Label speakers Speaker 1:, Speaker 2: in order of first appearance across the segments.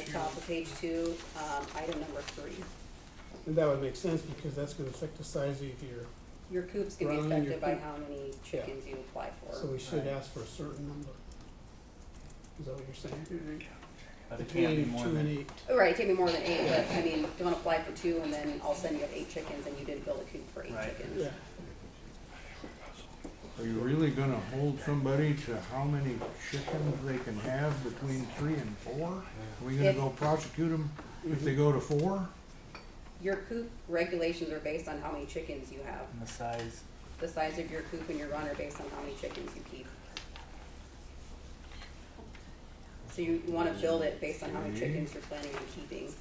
Speaker 1: top of page two, um, item number three.
Speaker 2: And that would make sense because that's gonna affect the size of your,
Speaker 1: Your coop's can be
Speaker 2: Rather than your
Speaker 1: affected by
Speaker 2: coop.
Speaker 1: how many chickens you apply
Speaker 2: so
Speaker 1: for.
Speaker 2: we should
Speaker 3: Right.
Speaker 2: ask for a certain number. Is that what you're saying?
Speaker 1: Mhm.
Speaker 3: But it can't be
Speaker 2: Between
Speaker 3: more
Speaker 2: two and
Speaker 3: than,
Speaker 2: eight.
Speaker 1: Oh, Right, it can be more than eight, but I mean, don't apply for two and then all of a sudden you have eight chickens and you didn't build a coop for eight
Speaker 3: Right.
Speaker 1: chickens.
Speaker 2: Yeah,
Speaker 4: Are you really gonna hold somebody to how many chickens they can have between three and four? Are we gonna
Speaker 1: If-
Speaker 4: go prosecute them if they go to four?
Speaker 1: Your coop regulations are based on how many chickens you have.
Speaker 3: and the size.
Speaker 1: The size of your coop and your run are based on how many chickens you keep. So you you wanna build it based on how many chickens you're planning on keeping.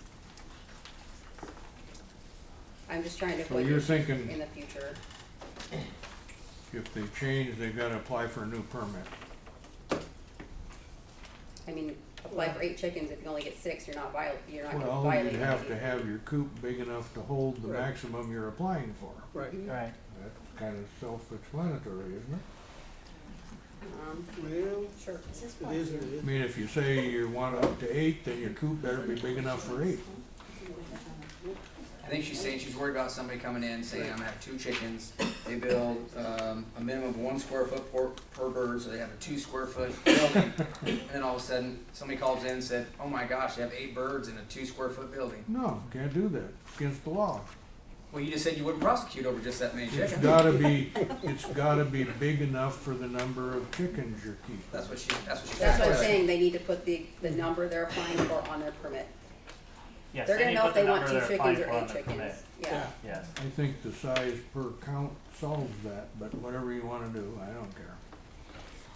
Speaker 1: I'm just trying to
Speaker 4: So
Speaker 1: put
Speaker 4: you're
Speaker 1: it
Speaker 4: thinking
Speaker 1: in the future.
Speaker 4: if they change, they gotta apply for a new permit.
Speaker 1: I mean, apply for eight chickens, if you only get six, you're not viol, you're not gonna
Speaker 4: Well,
Speaker 1: violate.
Speaker 4: you'd have to
Speaker 1: anything.
Speaker 4: have your coop big enough to hold the
Speaker 2: Right.
Speaker 4: maximum you're applying for.
Speaker 2: right.
Speaker 3: Right.
Speaker 4: That's kind of self-explanatory, isn't it?
Speaker 1: Um,
Speaker 2: Well,
Speaker 1: sure.
Speaker 2: it is, what it
Speaker 4: I
Speaker 2: is.
Speaker 4: mean, if you say you want up to eight, then your coop better be big enough for eight.
Speaker 5: I think she's saying she's worried about somebody coming in saying, I'm gonna have two chickens. They build, um, a minimum of one square foot per, per bird, so they have a two square foot building. And then all of a sudden, somebody calls in and said, oh my gosh, they have eight birds in a two square foot building.
Speaker 4: No, can't do that. Against the law.
Speaker 5: Well, you just said you wouldn't prosecute over just that many
Speaker 4: It's
Speaker 5: chickens.
Speaker 4: gotta be, it's gotta be big enough for the number of chickens you're keeping.
Speaker 5: That's what she, that's what she's.
Speaker 1: That's what I'm saying, they need to put the, the number they're applying for on their permit.
Speaker 3: Yes,
Speaker 1: They're
Speaker 3: they
Speaker 1: gonna
Speaker 3: need
Speaker 1: know
Speaker 3: to
Speaker 1: if
Speaker 3: put
Speaker 1: they
Speaker 3: the
Speaker 1: want two
Speaker 3: number they're
Speaker 1: chickens
Speaker 3: applying
Speaker 1: or
Speaker 3: for on
Speaker 1: eight
Speaker 3: the
Speaker 1: chickens,
Speaker 3: permit.
Speaker 1: yeah.
Speaker 3: Yes.
Speaker 4: I think the size per count solves that, but whatever you wanna do, I don't care.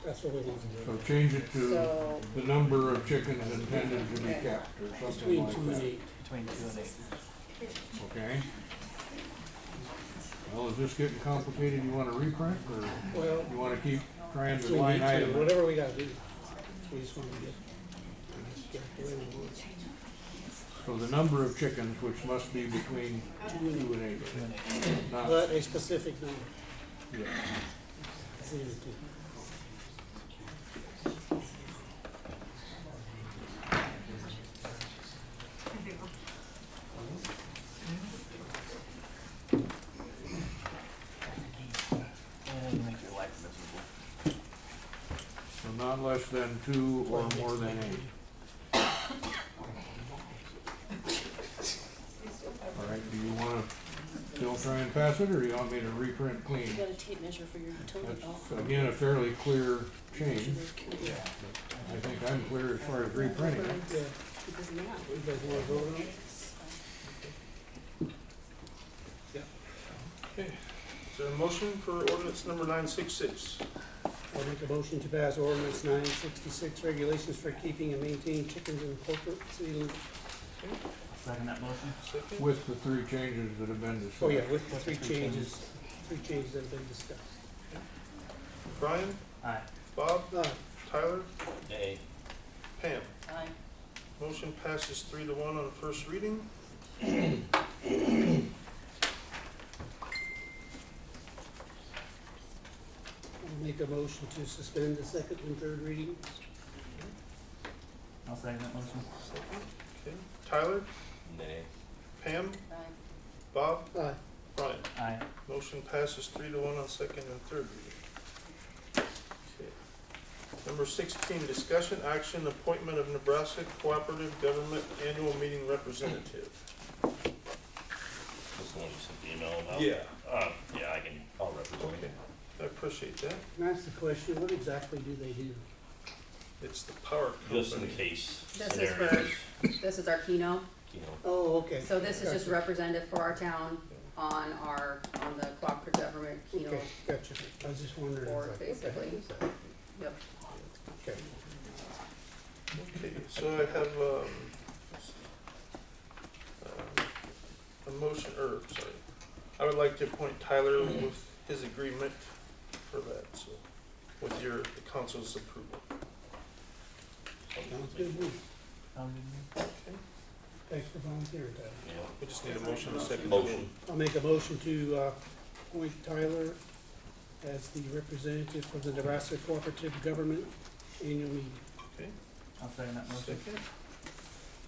Speaker 2: That's what we want to
Speaker 4: So
Speaker 2: do.
Speaker 4: change it to
Speaker 1: So,
Speaker 4: the number of chickens intended to be kept or something
Speaker 2: Between two
Speaker 4: like
Speaker 2: and
Speaker 4: that,
Speaker 2: eight.
Speaker 3: Between two and eight.
Speaker 4: okay? Well, is this getting complicated? You wanna reprint or
Speaker 2: Well,
Speaker 4: you wanna keep trying
Speaker 2: if
Speaker 4: to
Speaker 2: we need
Speaker 4: line
Speaker 2: to,
Speaker 4: item? it?
Speaker 2: whatever we gotta do. We just wanna get. get the way we want it.
Speaker 4: So the number of chickens, which must be between two and eight, not,
Speaker 2: But a specific number.
Speaker 4: yeah.
Speaker 2: It's easy to-
Speaker 3: And make your life miserable.
Speaker 4: So not less than two or more than eight. All right, do you wanna still try and pass it, or you want me to reprint clean?
Speaker 6: You got a tape measure for your utility belt.
Speaker 4: That's, again, a fairly clear change.
Speaker 6: Yeah.
Speaker 4: I think I'm clear as far as reprinting it.
Speaker 2: Yeah,
Speaker 6: It does not.
Speaker 2: you guys wanna vote on it?
Speaker 7: Is there a motion for ordinance number nine six six?
Speaker 2: I'll make a motion to pass ordinance nine sixty-six, regulations for keeping and maintaining chickens in corporate city limits.
Speaker 3: Second that motion?
Speaker 7: Second?
Speaker 4: With the three changes that have been discussed.
Speaker 2: Oh, yeah, with the three changes, three changes that have been discussed.
Speaker 7: Brian,
Speaker 3: Aye.
Speaker 7: Bob,
Speaker 2: Uh,
Speaker 7: Tyler,
Speaker 3: Nay.
Speaker 7: Pam.
Speaker 6: Aye.
Speaker 7: Motion passes three to one on first reading.
Speaker 2: I'll make a motion to suspend the second and third reading.
Speaker 3: I'll second that motion.
Speaker 7: Okay, Tyler? Pam,
Speaker 6: Aye.
Speaker 7: Bob,
Speaker 2: Aye.
Speaker 7: Brian.
Speaker 3: Aye.
Speaker 7: Motion passes three to one on second and third reading. Okay. Number sixteen, discussion action, appointment of Nebraska Cooperative Government Annual Meeting Representative.
Speaker 8: This one you sent the email about?
Speaker 7: Yeah,
Speaker 8: Uh, yeah, I can, I'll represent
Speaker 7: okay. I appreciate that.
Speaker 2: Can I ask the question, what exactly do they do?
Speaker 7: It's the power company.
Speaker 8: Just in case
Speaker 1: This is for-
Speaker 8: scenarios,
Speaker 1: this is our keynote,
Speaker 8: you know,
Speaker 2: Oh, okay.
Speaker 1: so this is just
Speaker 2: Gotcha.
Speaker 1: representative for our town on our, on the cooperative government
Speaker 2: Okay,
Speaker 1: keynote
Speaker 2: gotcha. I was just wondering.
Speaker 1: board,
Speaker 2: like,
Speaker 1: basically. Yep.
Speaker 2: Okay.
Speaker 7: Okay, so I have, um, um, a motion, or, sorry, I would like to appoint Tyler with his agreement for that, so, with your, the council's approval.
Speaker 2: Sounds good. to me.
Speaker 3: Sound good to me?
Speaker 2: Thanks for volunteering, Tyler.
Speaker 8: you
Speaker 7: We just need a motion and a second.
Speaker 8: know, motion.
Speaker 2: I'll make a motion to uh, appoint Tyler as the representative for the Nebraska Cooperative Government Annual Meeting.
Speaker 7: Okay,
Speaker 3: I'll second that motion.
Speaker 7: second.